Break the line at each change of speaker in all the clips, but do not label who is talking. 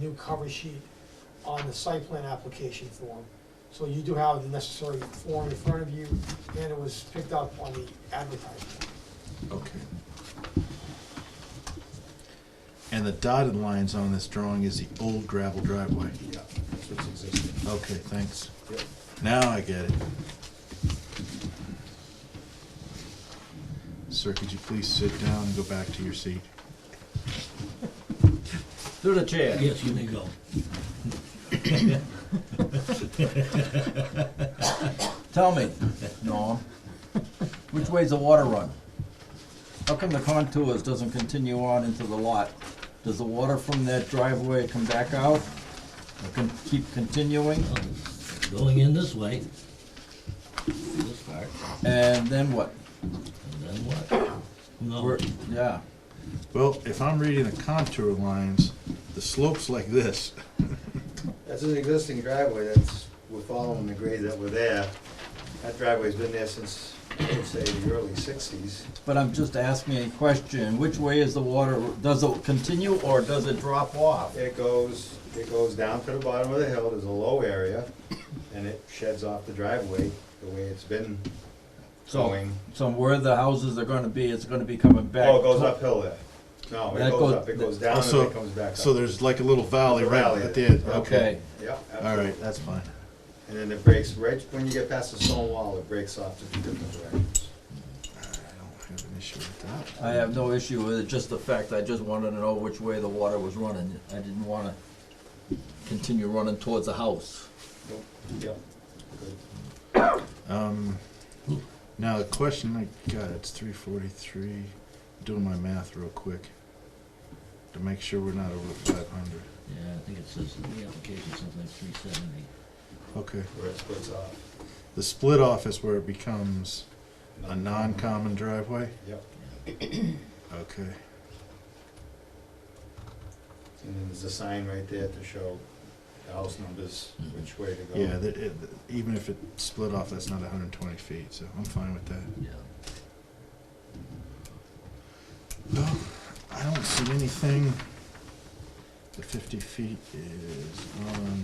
new cover sheet on the site plan application form. So you do have the necessary form in front of you, and it was picked up on the advertisement.
Okay. And the dotted lines on this drawing is the old gravel driveway.
Yeah, that's what's existing.
Okay, thanks.
Yep.
Now I get it. Sir, could you please sit down and go back to your seat?
Through the chair.
Yes, you may go.
Tell me, Norm, which way's the water run? How come the contours doesn't continue on into the lot? Does the water from that driveway come back out? Or can keep continuing?
Well, Going in this way. This part,
And then what?
and then what? No,
Oh.
Where- Yeah,
Well, if I'm reading the contour lines, the slope's like this.
That's an existing driveway, that's, we're following the grade that were there. That driveway's been there since, I would say, the early sixties.
but I'm just asking a question, which way is the water, does it continue or does it drop off?
It goes, it goes down to the bottom of the hill, there's a low area, and it sheds off the driveway the way it's been
So,
going.
so where the houses are gonna be, it's gonna be coming back?
Oh, it goes
to-
uphill there. No, it
That
goes
goes-
up, it goes down and
Also-
it comes back up.
So there's like a little valley right
Valley.
at the end.
Okay,
Yeah,
All
absolutely.
right, that's fine.
And then it breaks, right, when you get past the stone wall, it breaks off to two different directions.
I don't have an issue with that.
I have no issue with it, just the fact, I just wanted to know which way the water was running. I didn't wanna continue running towards the house.
Yep.
Um, now the question I got, it's three forty-three, doing my math real quick to make sure we're not over five hundred.
yeah, I think it says in the application something like three seventy.
Okay,
Where it splits off.
the split off is where it becomes a non-common driveway?
Yep,
Okay,
and then there's a sign right there to show the house numbers,
Mm-hmm.
which way to go.
yeah, that, it, even if it split off, that's not hundred and twenty feet, so I'm fine with that.
Yeah.
Well, I don't see anything. The fifty feet is on.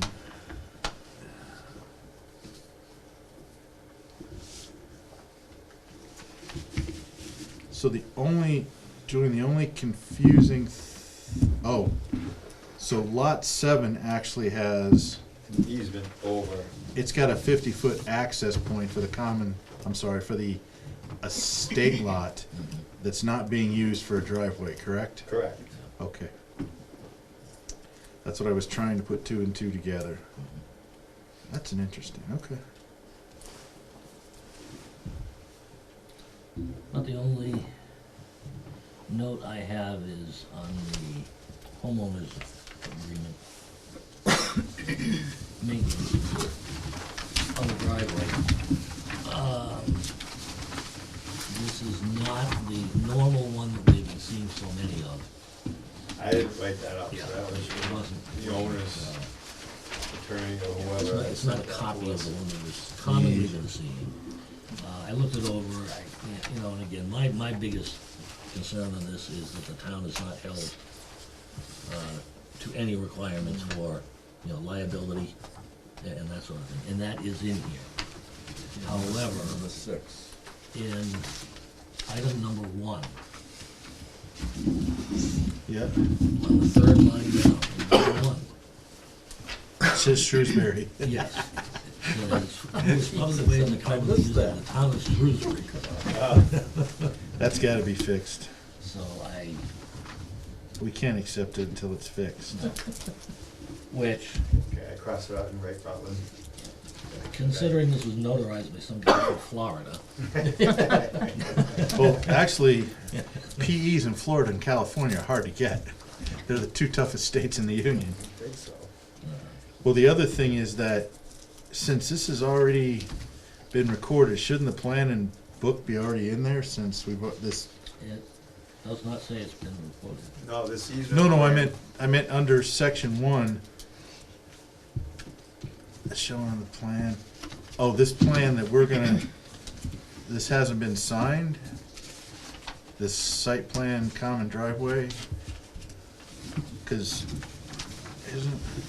So the only, doing the only confusing, th- oh, so lot seven actually has,
An Easement over,
it's got a fifty-foot access point for the common, I'm sorry, for the estate lot
mm-hmm.
that's not being used for a driveway, correct?
correct.
Okay. That's what I was trying to put two and two together. That's an interesting, okay.
But the only note I have is on the homeowners agreement. Maintenance on the driveway. Um, This is not the normal one that we've been seeing so many of.
I didn't write that up, so that was
It wasn't.
the owner's attorney or
It's not,
whoever.
it's not a copy of the one that was commonly been seen. Uh, I looked it over, I, you know, and again, my, my biggest concern on this is that the town is not held, uh, to any requirements for, you know, liability a- and that sort of thing, and that is in here. However,
Number six.
in item number one,
Yeah.
on the third line down, number one,
It says Shrewsbury.
Yes. Obviously, in the common
missed
use of the town of Shrewsbury.
That's gotta be fixed.
So I,
We can't accept it until it's fixed.
which,
Okay, I crossed it out and write Rutland.
considering this was notarized by some guy from Florida,
Well, actually, PEs in Florida and California are hard to get. They're the two toughest states in the union.
I think so.
Well, the other thing is that since this has already been recorded, shouldn't the plan and book be already in there since we bought this?
it does not say it's been reported.
No, this easement.
No, no, I meant, I meant under section one. Showing on the plan, oh, this plan that we're gonna, this hasn't been signed? This site plan common driveway? Cause isn't